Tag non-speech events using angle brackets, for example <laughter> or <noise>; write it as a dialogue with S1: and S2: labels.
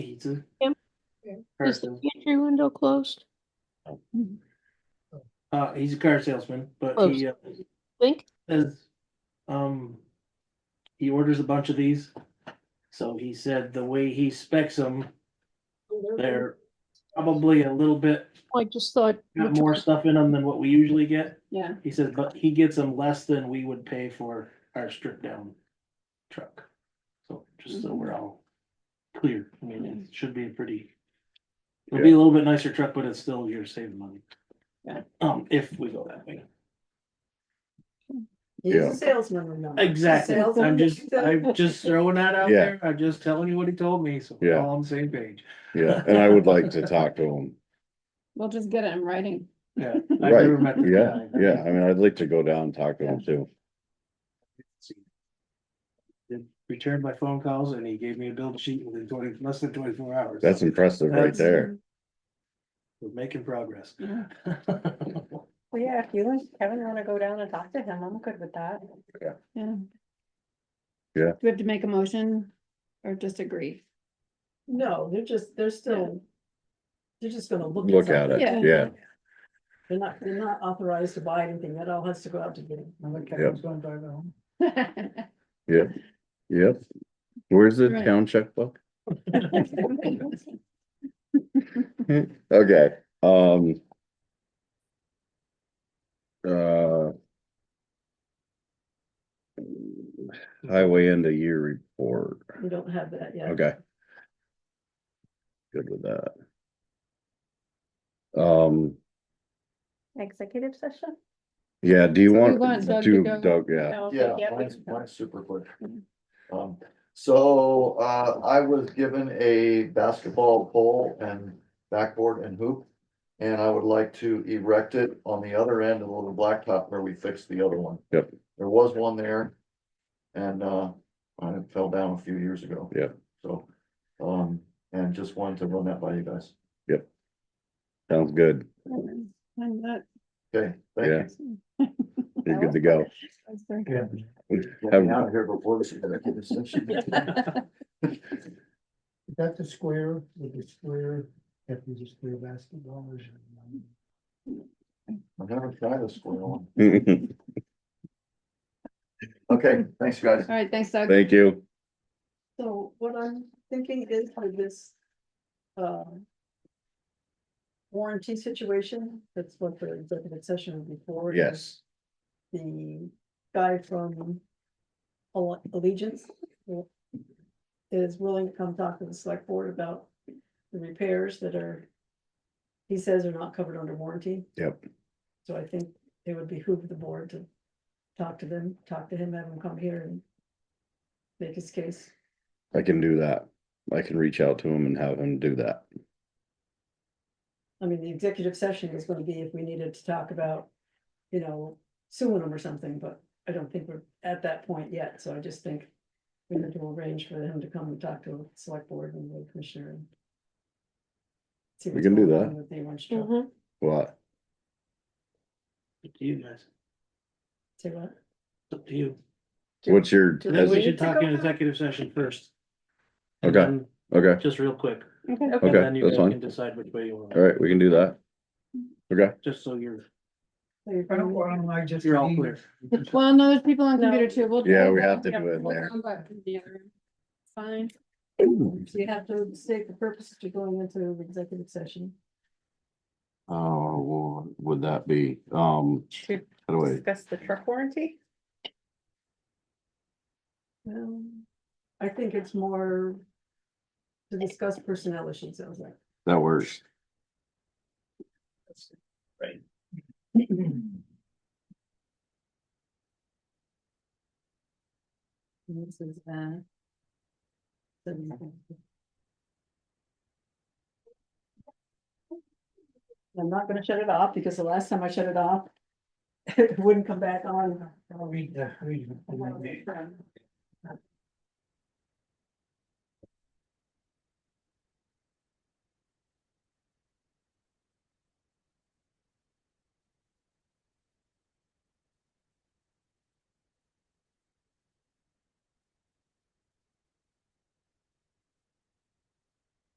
S1: He's a
S2: Him? Is the
S1: Car
S2: pantry window closed?
S1: uh, he's a car salesman, but he uh,
S2: Think,
S1: says, um, he orders a bunch of these. So he said the way he specs them, they're probably a little bit
S2: Oh, I just thought.
S1: got more stuff in them than what we usually get.
S2: Yeah.
S1: He says, but he gets them less than we would pay for our stripped down truck. So just so we're all clear, I mean, it should be a pretty. It'll be a little bit nicer truck, but it's still you're saving money.
S2: Yeah.
S1: Um, if we go that way.
S3: He's
S4: Yeah.
S3: a salesman or not.
S1: Exactly, I'm
S3: Salesman.
S1: just, I'm just throwing that out
S4: Yeah.
S1: there, I'm just telling you what he told me, so we're
S4: Yeah.
S1: all on the same page.
S4: Yeah, and I would like to talk to him.
S2: We'll just get it in writing.
S1: Yeah. I've
S4: Right,
S1: never met this
S4: yeah,
S1: guy.
S4: yeah, I mean, I'd like to go down and talk to him too.
S1: Then Returned my phone calls and he gave me a bill sheet within twenty, less than twenty-four hours.
S4: That's impressive right
S1: That's-
S4: there.
S1: We're making progress. <laughs>
S2: Yeah.
S5: Well, yeah, if you and Kevin wanna go down and talk to him, I'm good with that.
S2: Yeah.
S4: Yeah.
S2: Do we have to make a motion or just agree?
S3: No, they're just, they're still. They're just gonna look.
S4: Look at
S3: something.
S2: Yeah.
S4: it, yeah,
S3: They're not, they're not authorized to buy anything. That all has to go out to bid.
S4: Kevin's
S3: going to the home.
S4: yep. Where's the
S2: Right.
S4: town checkbook? Okay, um. Uh. Highway end of year report,
S3: <laughs> We don't have that yet.
S4: okay. Good with that. Um,
S5: Executive session?
S4: yeah, do you
S2: So we
S4: want,
S2: want Doug to
S4: do,
S2: go-
S4: Doug, yeah,
S6: Yeah,
S5: we
S6: mine's,
S5: can go. Mm-hmm.
S6: mine's super quick.
S2: Mhm.
S6: Um, so, uh, I was given a basketball pole and backboard and hoop. And I would like to erect it on the other end of the little blacktop where we fixed the other one.
S4: Yep.
S6: There was one there. And, uh, I fell down a few years ago.
S4: Yep.
S6: So, um, and just wanted to run that by you guys.
S4: sounds good,
S2: I'm not-
S6: Okay, thank
S4: yeah,
S6: you.
S4: you're good to go.
S2: that's very
S1: Yeah.
S6: Get
S4: Have-
S6: me out of here before this. executive
S5: <laughs>
S6: session.
S7: Is that the square with the square, if you just play basketball or? something?
S6: I've never tried a square one.
S4: <laughs> Thank
S6: Okay, thanks, you guys.
S2: All right, thanks, Doug.
S4: you.
S3: So what I'm thinking is for this. um, Warranty situation, that's what the executive session would be for. is
S4: Yes,
S3: the guy from Alle- Allegiance will- is willing to come talk to the select board about the repairs that are, he says are not covered under warranty.
S4: Yep.
S3: So I think it would behoove the board to talk to them, talk to him, have him come here and make his case.
S4: I can do that. I can reach out to him and have him do that.
S3: I mean, the executive session is gonna be if we needed to talk about, you know, suing them or something, but I don't think we're at that point yet, so I just think. We need to arrange for him to come and talk to the select board and the commissioner. and see
S4: We
S3: what's
S4: can do
S3: going on
S4: that.
S3: with the orange truck.
S2: Mm-hmm.
S5: Mhm.
S4: What?
S1: Up to you guys,
S3: Say what?
S1: It's up to you.
S4: What's your,
S3: Do
S1: I think
S4: has-
S1: we
S3: need
S1: should
S3: to
S1: talk
S3: go
S1: in
S3: now?
S1: executive session first.
S4: Okay.
S1: And then
S4: okay,
S1: Just real quick.
S2: Okay.
S1: and
S4: Okay,
S1: then you
S4: that's
S1: guys
S4: fine.
S1: can Decide which way you want,
S4: all right, we can do that. Okay,
S1: just so you're,
S3: So you're
S7: Why don't,
S3: going-
S7: why don't I just?
S1: you're all
S7: leave?
S1: clear.
S2: Well, no, there's people on
S3: No.
S2: computer too. We'll-
S4: Yeah, we have to do it
S2: we'll
S4: there.
S2: come back to the other room. Fine.
S3: So you have to state the purpose to going into the executive session.
S4: uh, what would that be, um,
S5: To
S4: how do I,
S5: Discuss the truck warranty?
S3: Well, I think it's more. To discuss personnel issues, I was like.
S4: that works.
S3: This is that. I'm not gonna shut it off because the last time I shut <laughs> it off, it wouldn't come back on.
S7: uh, I'll read the, read the-